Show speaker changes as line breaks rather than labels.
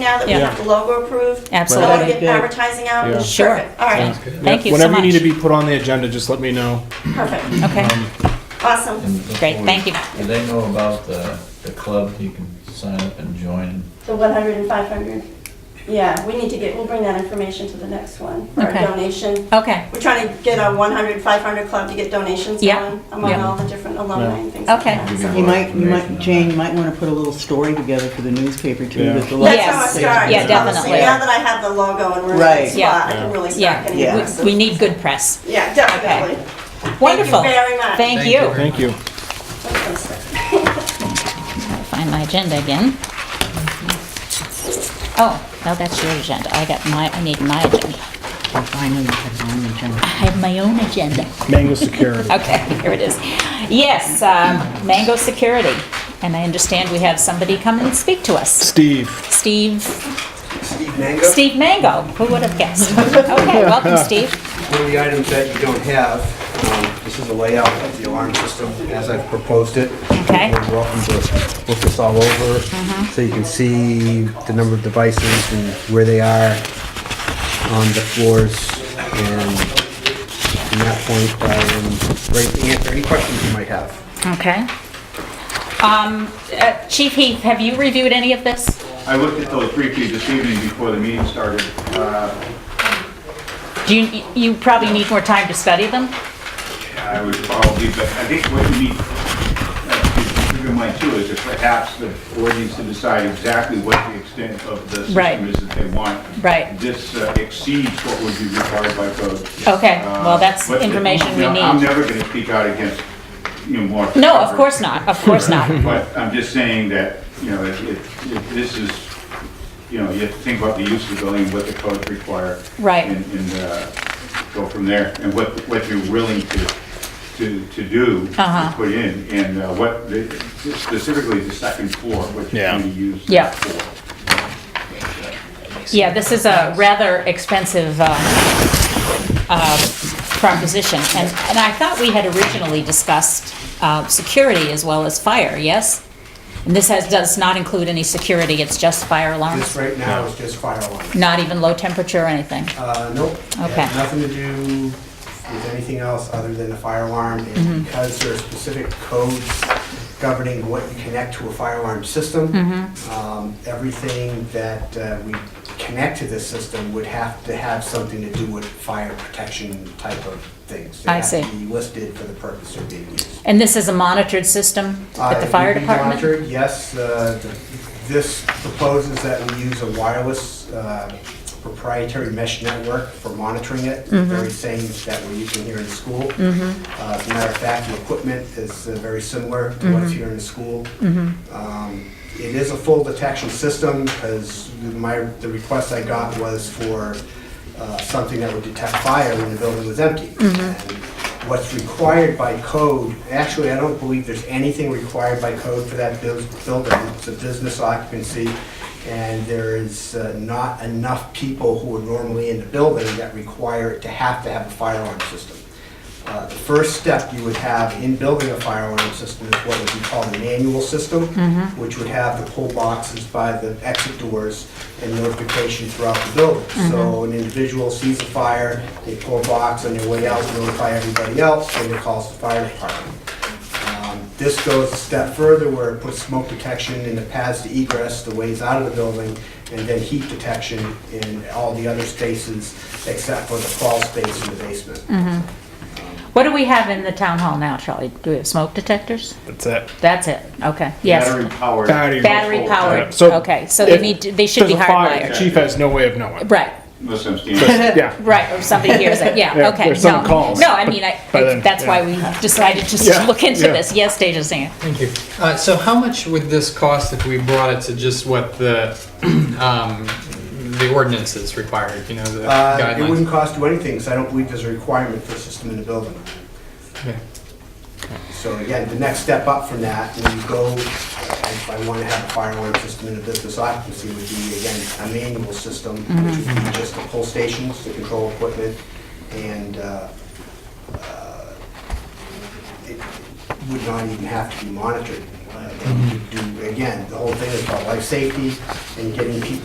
now that we
Yeah.
have the logo approved? So
Absolutely.
we get advertising out?
Yeah.
Sure.
Perfect. All right,
Thank you so
Whenever you need
much.
to be put on the agenda, just let me know.
perfect,
Okay,
awesome.
Great, thank you.
Do they know about the, the club you can sign up and join?
The 100 and 500? Yeah, we need to get, we'll bring that information to the next one, for our
Okay.
donation.
okay,
We're trying to get a 100, 500 club to get donations
Yeah.
going among
Yeah.
all the different alumni and things like
Okay.
that.
Give
You
more
might, you
information
might,
on
Jane,
that.
you might want to put a little story together for the newspaper too.
Yeah.
that the
That's
locals
how I
say.
start.
Yeah,
Honestly,
definitely.
now that I have the logo and we're in
Right.
the
Yeah.
spot, I can really start getting.
Yeah.
yeah,
aggressive.
we- we need good press.
Yeah, definitely.
Wonderful.
Thank you very much.
Thank you.
Thank you.
Find my agenda again. Oh, no, that's your agenda. I got my, I need my agenda.
I know you have your own agenda.
I have my own agenda.
Mango Security.
Okay, here it is. Yes, um, Mango Security. And I understand we have somebody come and speak to us.
Steve.
Steve,
Steve Mango.
Steve Mango. Who would have guessed? Okay, welcome, Steve.
One of the items that you don't have, um, this is a layout of the alarm system as I've proposed it.
Okay. Mm-hmm.
You're welcome to look this all over, so you can see the number of devices and where they are on the floors. And from that point, I'm ready to answer any questions you might have.
Okay. Um, uh, Chief Heath, have you reviewed any of this?
I looked at those briefly this evening before the meeting started. Uh,
Do you, you probably need more time to study them?
I would probably, but I think what you need uh, to keep in mind too is that perhaps the board needs to decide exactly what the extent of the
Right.
system is that they want.
Right.
This uh, exceeds what would be required by code.
Okay, well,
Uh,
that's
but,
information we
you know, I'm
need.
never going to speak out against, you know, more.
No, of course not, of course not.
But I'm just saying that, you know, if, if if this is, you know, you have to think about the use of the building, what the codes require.
Right.
And, and, uh, go from there, and what, what you're willing to, to, to do,
Uh-huh.
to put in, and uh, what, the- specifically the second floor, what you're
Yeah.
going to use.
Yeah.
for.
Yeah, this is a rather expensive uh, uh, proposition, and, and I thought we had originally discussed uh, security as well as fire, yes? And this has, does not include any security, it's just fire
This
alarms,
right now is just fire alarm.
not even low temperature or anything?
Uh, nope. It had
Okay.
Nothing to do with anything else other than the fire alarm.
Mm-hmm.
And because there are specific codes governing what you connect to a fire alarm system,
Mm-hmm.
um, everything that uh, we connect to this system would have to have something to do with fire protection type of things.
I
They
see.
have to be listed for the purpose of being used.
And this is a monitored system at
Uh,
the
it
fire
will be
department?
monitored, Yes, uh, th- this proposes that we use a wireless uh, proprietary mesh network for monitoring it,
Mm-hmm.
the very same that we're using here in school. Uh, As a matter of fact, the equipment is uh, very similar to
Mm-hmm.
what's here in the school. Um, It is a full detection system, because my, the request I got was for uh, something that would detect fire when the building was empty. And What's required by code, actually, I don't believe there's anything required by code for that buil- building. It's a business occupancy, and there is uh, not enough people who are normally in the building that require it to have to have a fire alarm system. Uh, The first step you would have in building a fire alarm system is what would be called a manual system, which would have the pull boxes by the exit doors and notification throughout the building. So an individual sees a fire, they pull a box on their way out, notify everybody else, and it calls the fire department. Um, This goes a step further where it puts smoke detection in the paths to egress, the ways out of the building, and then heat detection in all the other spaces except for the crawl space in the basement.
What do we have in the town hall now, Charlie? Do we have smoke detectors?
That's it.
That's it, okay,
Battery
yes.
powered.
Battery.
Battery powered,
So
okay, so they
if
need, to- they should be
there's a fire, the
hardwired.
Chief has no way of knowing.
Right,
Unless I'm standing.
Yeah.
right, or somebody hears it,
Yeah,
yeah, okay.
there's some
no.
calls,
No, I mean, I,
but then-
that's why we decided just to
Yeah,
look into
yeah.
this, yes, Deja Singer.
Thank you. Uh, so how much would this cost if we brought it to just what the, um, the ordinances required, you know, the
Uh, It wouldn't
guidelines?
cost you anything, because I don't believe there's a requirement for a system in the building.
Okay.
So again, the next step up from that, when you go, if I want to have a fire alarm system in a business occupancy, would be, again, a manual system, which would be just the pull stations, the control equipment, and uh, uh, it would not even have to be monitored. Uh, and you do- Again, the whole thing is about life safety and getting people